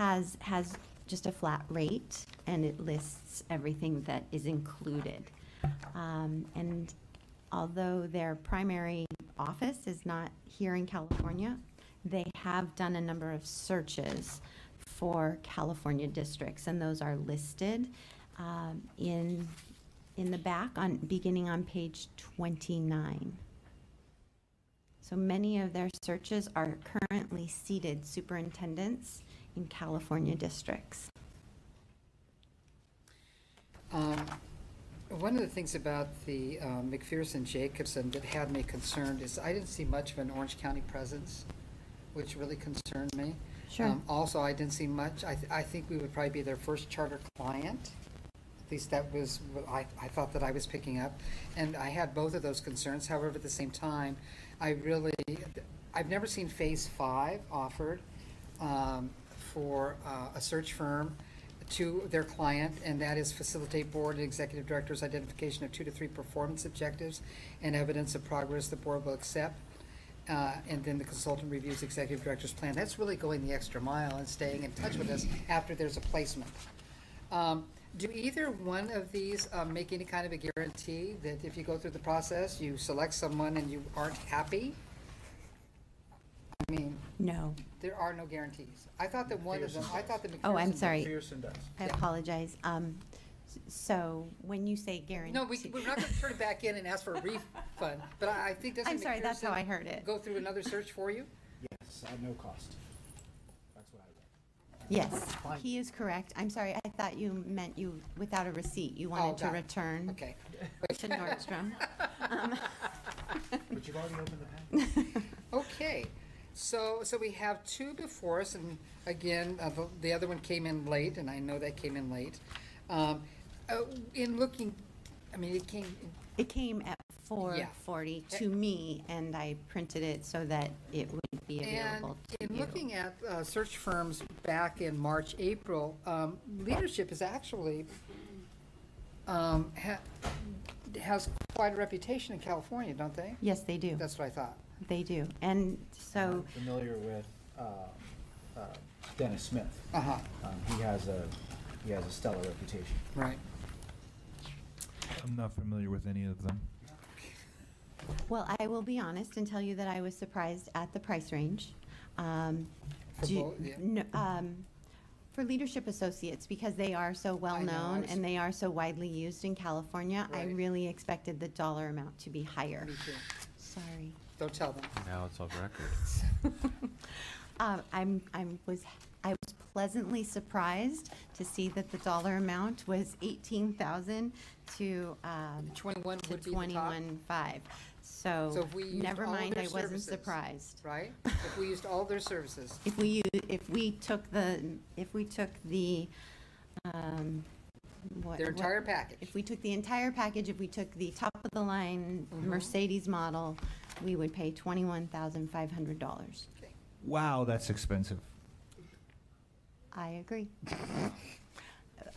has, has just a flat rate, and it lists everything that is included. Um, And although their primary office is not here in California, they have done a number of searches for California districts, and those are listed um, in, in the back on, beginning on page 29. So many of their searches are currently seated superintendents in California districts. Um, One of the things about the um, McPherson-Jacobson that had me concerned is I didn't see much of an Orange County presence, which really concerned me. Sure. Um, Also, I didn't see much, I, th- I think we would probably be their first charter client. At least that was what I, I thought that I was picking up. And I had both of those concerns. However, at the same time, I really, I've never seen Phase Five offered um, for uh, a search firm to their client, and that is facilitate board and executive directors' identification of two to three performance objectives and evidence of progress the board will accept. Uh, and then the consultant reviews executive director's plan. That's really going the extra mile and staying in touch with us after there's a placement. Um, Do either one of these um, make any kind of a guarantee that if you go through the process, you select someone and you aren't happy? I mean, No. there are no guarantees. I thought that one of them, I thought that McPherson. Oh, I'm sorry. McPherson does. I Yeah. apologize. Um, s- So when you say guarantee. No, we, we're not gonna turn it back in and ask for a refund, but I I think doesn't. I'm sorry, that's how McPherson I heard it. Go through another search for you? Yes, at no cost. That's what I Yes, read. he is correct. I'm sorry, I thought you meant you, without a receipt, you wanted to Oh, got it. return Okay. to Nordstrom. But you've already opened the package. Okay, so, so we have two before us, and again, uh, the- the other one came in late, and I know that came in late. Um, uh, In looking, I mean, it came, It came at 4:40 to me, and I printed it so that it would be and available to in you. looking at uh, search firms back in March, April, um, leadership is actually, um, ha- has quite a reputation in California, don't they? Yes, they do. That's what I thought. They do. And so, I'm Familiar with um, uh, Dennis Smith. Uh-huh, Um, He has a, he has a stellar reputation. right. I'm not familiar with any of them. well, I will be honest and tell you that I was surprised at the price range. Um, For do you- both, yeah. n- um, For leadership associates, because they are so know, I well-known was- and they are so widely used in California, I Right. Mm. really expected the dollar amount to be higher. Me too. Sorry. Don't tell them. Now it's off record. Um, I'm, I'm, was, I was pleasantly surprised to see that the dollar amount was 18,000 to, um, Twenty-one to would be the top. 21.5. So So, if we used never all mind, their I wasn't services. surprised. right? If we used all their services. If we, u- if we took the, if we took the, um, what? Their what- entire package. If we took the entire package, if we took the top of the line Mm-hmm. Mercedes model, we would pay $21,500. Okay. Wow, that's expensive. I agree.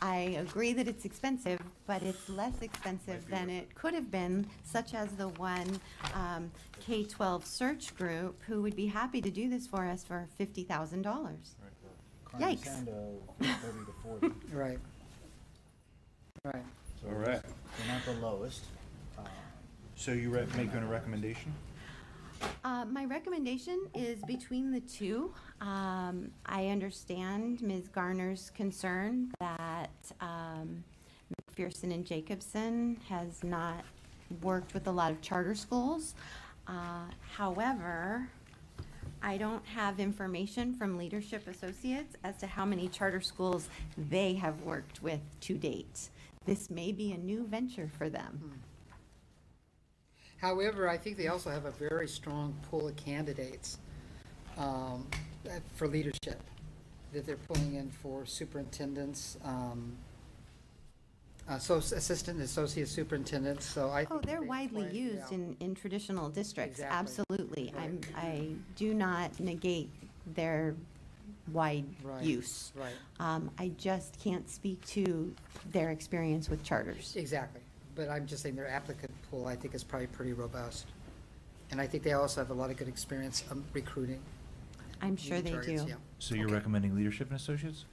I agree that it's expensive, but it's less expensive than it could have been, such as the one um, K-12 search group who would be happy to do this for us for $50,000. Carmen Yikes. Sando, thirty to forty. Right. Right. All right. They're not the lowest. Um, So you re- making a recommendation? Uh, My recommendation is between the two. Um, I understand Ms. Garner's concern that um, McPherson and Jacobson has not worked with a lot of charter schools. Uh, However, I don't have information from Leadership Associates as to how many charter schools they have worked with to date. This may be a new venture for them. However, I think they also have a very strong pool of candidates um, uh, for leadership that they're pulling in for superintendents, um, asso- assistant, associate superintendents, so I. Oh, think they're they widely play- used yeah. in, in traditional districts, Exactly. absolutely. I'm, Right. I do not negate their wide Right, use. right. Um, I just can't speak to their experience with charters. Exactly, but I'm just saying their applicant pool, I think, is probably pretty robust. And I think they also have a lot of good experience um, recruiting. I'm sure union they targets, do. yeah. So you're recommending leadership and associates?